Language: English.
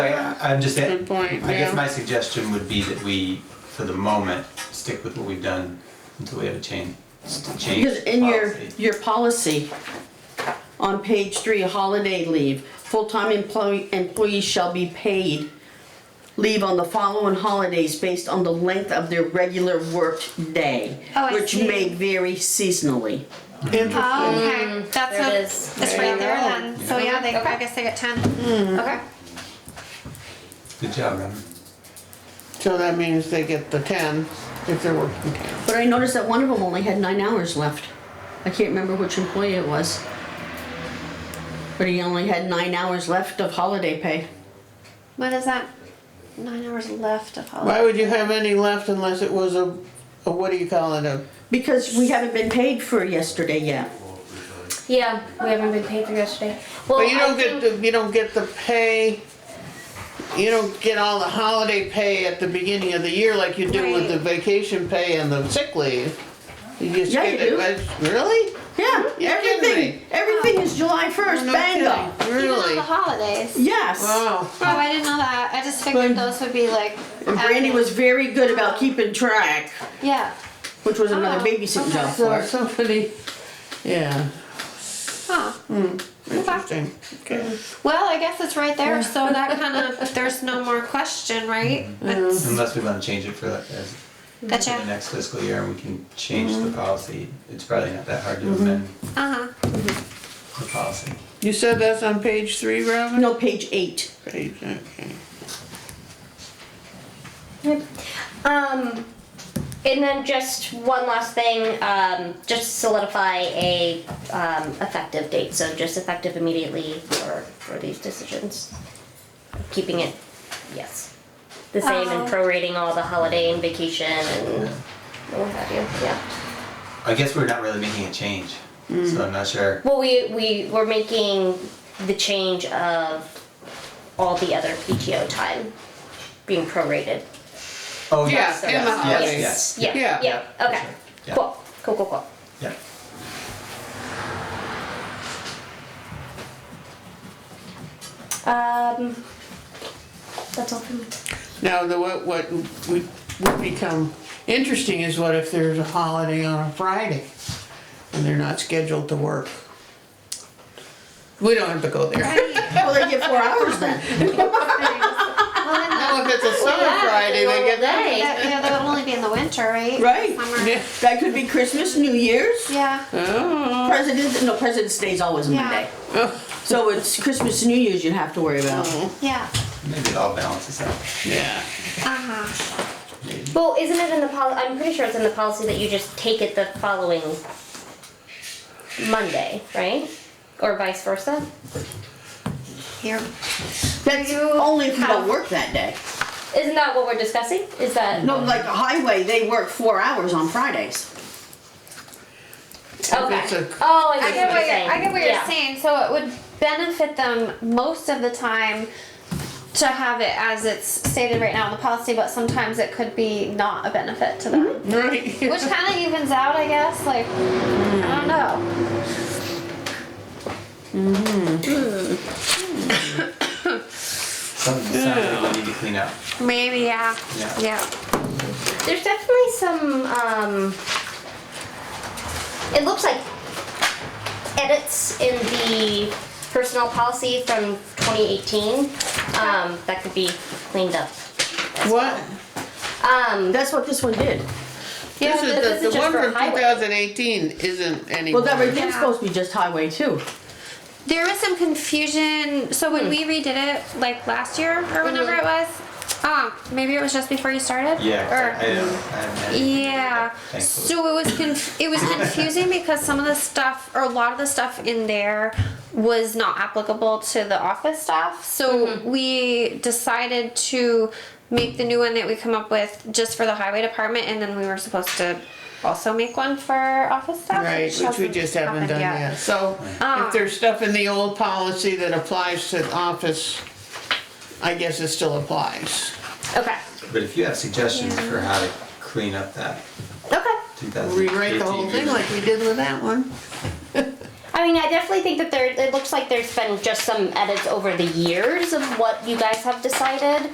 I'm just saying, Good point, I guess yeah. my suggestion would be that we, for the moment, stick with what we've done until we have a change, change Because in your, policy. your policy, on page three, holiday leave, full-time employee, employees shall be paid leave on the following holidays based on the length of their regular worked day. Oh, I Which see. may vary seasonally. Oh, okay, that's There it a, is. it's right there then, so yeah, they, I guess they get ten, okay. Good job, Robin. So that means they get the ten if they're working ten. But I noticed that one of them only had nine hours left. I can't remember which employee it was. But he only had nine hours left of holiday pay. What is that? Nine hours left of holiday. Why would you have any left unless it was a, a what do you call it, a, Because we haven't been paid for yesterday yet. Yeah, we haven't been paid for yesterday. Well, but you I don't think- get, the you don't get the pay, you don't get all the holiday pay at the beginning of the year like you do with Right. the vacation pay and the sick leave. You just Yeah, get you it, do. but- really? Yeah, You're kidding everything, me. everything is July first, No bango. kidding. Even on the Really? holidays. Yes. Wow. Oh, I didn't know that, I just figured those would be like. And Brandy added. was very good about keeping track, Yeah, which was another Oh, babysitting okay. job for So her. somebody, yeah, huh, okay. interesting, okay. Well, I guess it's right there, so that kind of, there's no more question, right? That's, Unless we want to change it for like, as, for the gotcha, next fiscal year, and we can change the Mm-hmm. policy. It's probably not that hard to amend uh-huh. the policy. You said that's on page three, Robin? No, page eight. Page, okay. Um, and then just one last thing, um, just solidify a, um, effective date, so just effective immediately for, for these decisions. Keeping it, yes, the same and Oh. prorating all the holiday and vacation and what have you, yeah. I guess we're not really making a change, Mm. so I'm not sure. Well, we, we were making the change of all the other PTO time being prorated. Oh, Yeah, yes, and the yes, holidays. yes, yes, Yeah, Yeah. yeah, okay, Yeah. cool, cool, cool, cool. yeah. Um, that's all for me. Now, the, what, what would would become interesting is what if there's a holiday on a Friday and they're not scheduled to work? We don't have to go there. Well, they get four hours then. Well, then Now, if it's a summer that's a Friday, they get normal that. day. That, yeah, that would only be in the winter, right? Right. Summer. That could be Christmas, New Year's, Yeah. Oh, President, no, President's Day's always a Yeah. Monday. oh, So it's Christmas, New Year's you have to worry about. Yeah. Maybe it all balances out. yeah. Uh-huh. Well, isn't it in the pol, I'm pretty sure it's in the policy that you just take it the following Monday, right? Or vice versa? Here. That's only if you don't work that day. Isn't that what we're discussing? Is that? No, like the highway, they work four hours on Fridays. It's Okay. a- Oh, I I get what see what you're you're, saying. I get what you're Yeah. saying. So it would benefit them most of the time to have it as it's stated right now in the policy, but sometimes it could be not a benefit to them, Mm-hmm. Right. which kind of evens out, I guess. Like, I don't know. Something, something we need to clean up. Maybe, yeah. Yeah. There's definitely some. Um, it looks like edits in the personnel policy from 2018 um, that could be cleaned up. What? Um, That's what this one did. yeah, This but is, the- the just one for from highway. 2018 isn't Well, anymore. that was Yeah. supposed to be just highway too. There was some confusion. So Hmm. when we redid it, like last year or whenever Mm-hmm. it was, um, maybe it was just before you started. Yeah, 'cause Or, I, I don't, I haven't had anything to do with yeah. that, thankfully. So it was conf- it was confusing because some of the stuff or a lot of the stuff in there was not applicable to the office staff. So Mm-hmm. we decided to make the new one that we come up with just for the highway department, and then we were supposed to also make one for office staff. Right, which we hasn't just haven't happened done yet. So if there's stuff in the old policy that applies to the office, I guess it still applies. Okay. But if you have suggestions for how to clean up that Okay. 2018. Rewrite the whole thing like we did with that one. I I mean, I definitely think that there, it looks like there's been just some edits over the years of what you guys have decided.